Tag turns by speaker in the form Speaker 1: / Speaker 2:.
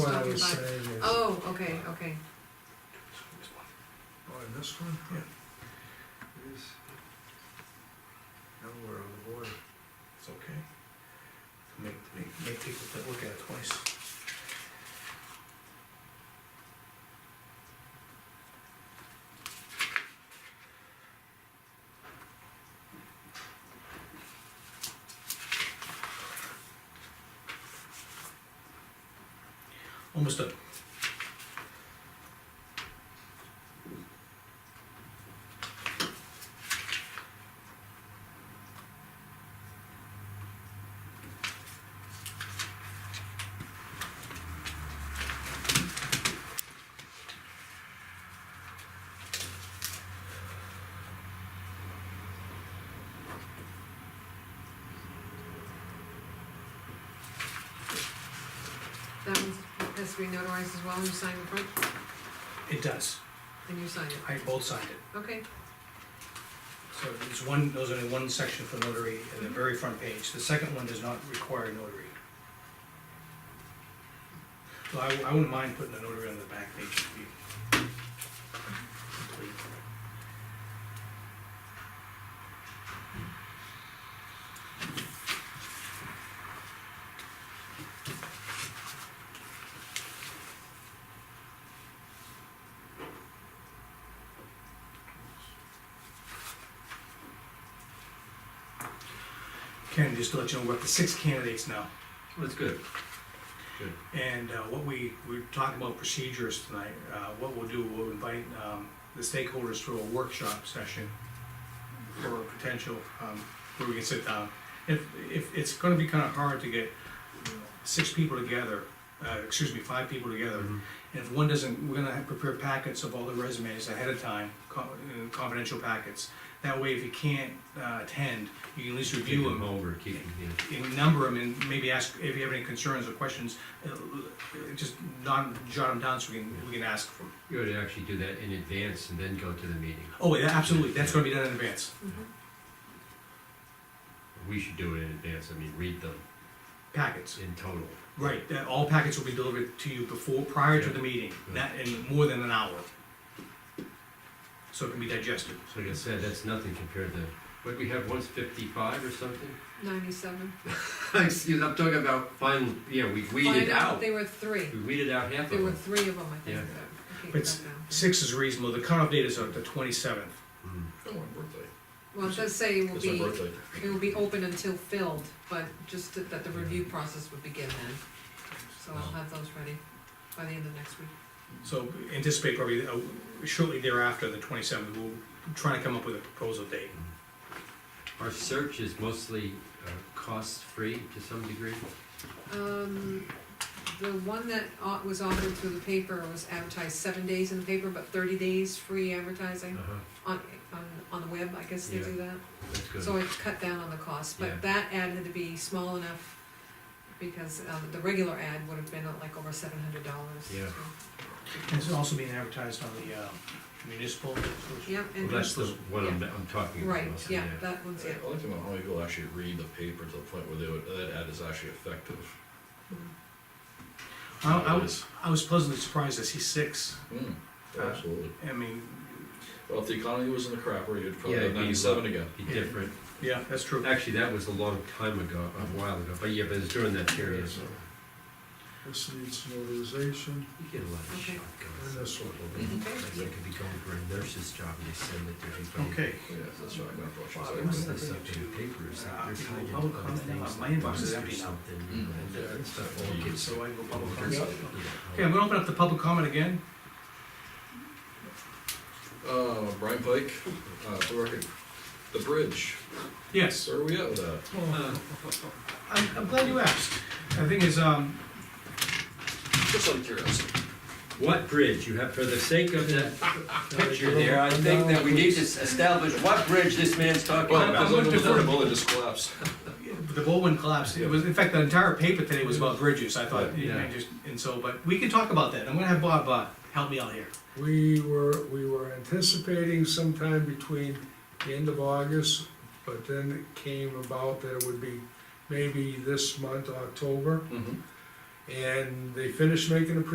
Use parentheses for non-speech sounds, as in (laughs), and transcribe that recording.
Speaker 1: Five.
Speaker 2: say is.
Speaker 1: Oh, okay, okay.
Speaker 2: Oh, and this one? Yeah. Is. Now we're on the border.
Speaker 3: It's okay. Make, make, make people think- look at it twice. Almost done.
Speaker 1: That one has to be notarized as well, you sign in front,
Speaker 3: It does.
Speaker 1: and you sign it.
Speaker 3: I both signed it.
Speaker 1: Okay,
Speaker 3: So there's one, there's only one section for notary in the very front page. The second one does not require notary. So I, I wouldn't mind putting a notary on the back page to be complete. Ken, just to let you know, we're up to six candidates now.
Speaker 4: That's good.
Speaker 3: And uh, what we, we're talking about procedures tonight, Uh, what we'll do, we'll invite um, the stakeholders to a workshop session for a potential, um, where we can sit down. If, if, it's gonna be kinda hard to get six people together, uh, excuse me, five people together. And if one doesn't, we're gonna have prepare packets of all the resumes ahead of time, co- uh, confidential packets. That way, if you can't uh, attend, you can at least
Speaker 4: Keep
Speaker 3: review them
Speaker 4: them over, keep them, yeah.
Speaker 3: and number them and maybe ask if you have any concerns or questions, uh, just not jot them down so we can, we can ask for 'em.
Speaker 4: You ought to actually do that in advance and then go to the meeting.
Speaker 3: Oh, yeah, absolutely, that's gonna be done in advance.
Speaker 1: Mm-hmm.
Speaker 4: We should do it in advance, I mean, read them
Speaker 3: Packets,
Speaker 4: in total.
Speaker 3: right, that all packets will be delivered to you before, prior to
Speaker 4: Yeah.
Speaker 3: the meeting,
Speaker 4: Yeah.
Speaker 3: that in more than an hour. So it can be digested.
Speaker 4: So like I said, that's nothing compared to, what, we have once fifty-five or something?
Speaker 1: ninety-seven.
Speaker 4: (laughs) Excuse, I'm talking about final, yeah, we
Speaker 1: Find
Speaker 4: weeded out,
Speaker 1: There were three,
Speaker 4: we weeded out half of
Speaker 1: there were
Speaker 4: them.
Speaker 1: three of them, I think,
Speaker 4: Yeah.
Speaker 1: that, I
Speaker 3: But
Speaker 1: can't
Speaker 3: s-
Speaker 1: cut down.
Speaker 3: Six is reasonable, the cutoff date is uh, the twenty-seventh.
Speaker 4: Mm.
Speaker 5: Oh, my birthday.
Speaker 1: Well, it does say it will
Speaker 5: It's my
Speaker 1: be,
Speaker 5: birthday.
Speaker 1: it will be open until filled, but just that- that the review process would begin then. So I'll have those ready by the end of next week.
Speaker 3: So anticipate probably uh, shortly thereafter, the twenty-seventh, we'll try to come up with a proposal date.
Speaker 4: Our search is mostly uh, cost-free to some degree.
Speaker 1: Um, the one that au- was offered through the paper was advertised seven days in the paper, but thirty days free advertising
Speaker 4: Uh-huh,
Speaker 1: on, on, on the web, I guess they do that.
Speaker 4: that's good.
Speaker 1: So it cut down on the cost,
Speaker 4: Yeah.
Speaker 1: but that ad had to be small enough, because, um, the regular ad would have been uh, like over seven hundred dollars.
Speaker 4: Yeah.
Speaker 3: And it's also being advertised on the uh, municipal.
Speaker 1: Yep,
Speaker 4: Well,
Speaker 1: and,
Speaker 4: that's the one I'm, I'm talking about.
Speaker 1: right,
Speaker 4: mostly,
Speaker 1: yeah, that one's it.
Speaker 5: I like to know how many people actually read the paper to the point where they would, that ad is actually effective.
Speaker 3: I, I was, I was pleasantly surprised to see six.
Speaker 5: Hmm,
Speaker 3: Uh,
Speaker 5: absolutely.
Speaker 3: I mean,
Speaker 5: Well, if the economy was in the crapper, you'd
Speaker 4: Yeah,
Speaker 5: probably
Speaker 4: it'd
Speaker 5: have
Speaker 4: be
Speaker 5: ninety-seven
Speaker 4: low.
Speaker 5: again.
Speaker 4: Be different.
Speaker 3: yeah, that's true.
Speaker 4: Actually, that was a long time ago, a while ago, but yeah, but it's during that period.
Speaker 2: So, This needs notarization.
Speaker 4: You get a lot of
Speaker 1: Okay.
Speaker 4: shotguns.
Speaker 2: That's what-
Speaker 4: Like, They could be going for a nurse's job and they send it to everybody.
Speaker 3: Okay.
Speaker 5: Yeah, that's right, my
Speaker 3: Wow,
Speaker 5: fortune's
Speaker 3: it
Speaker 5: like-
Speaker 3: must
Speaker 4: What's
Speaker 3: have been
Speaker 4: this up in
Speaker 3: to,
Speaker 4: the papers?
Speaker 3: uh,
Speaker 4: They're
Speaker 3: people
Speaker 4: tied
Speaker 3: public
Speaker 4: up on
Speaker 3: comment.
Speaker 4: things
Speaker 3: My
Speaker 4: like
Speaker 3: inbox is
Speaker 4: buses
Speaker 3: empty
Speaker 4: or
Speaker 3: now.
Speaker 4: something,
Speaker 5: Mm.
Speaker 4: and that stuff all gets-
Speaker 3: So I go public
Speaker 4: Yeah.
Speaker 3: comment. Okay, I'm gonna open up the public comment again.
Speaker 5: Uh, Brian Pike, uh, for the record, the bridge,
Speaker 3: Yes.
Speaker 5: where are we at with that?
Speaker 4: Uh,
Speaker 3: I'm, I'm glad you asked. The thing is, um,
Speaker 5: Just out of curiosity.
Speaker 4: What bridge? You have, for the sake of that picture there, I think that we need to establish what bridge this man's talking
Speaker 5: Well,
Speaker 4: about.
Speaker 5: because
Speaker 3: I'm gonna
Speaker 5: I'm
Speaker 3: defer-
Speaker 5: the bullet just collapsed.
Speaker 3: the Baldwin collapse, it was, in fact, the entire paper today was about bridges, I thought,
Speaker 4: Yeah.
Speaker 3: and just, and so, but we can talk about that. I'm gonna have Bob, uh, help me out here.
Speaker 6: We were, we were anticipating sometime between the end of August, but then it came about that it would be maybe this month, October.
Speaker 5: Mhm.
Speaker 6: And they finished making a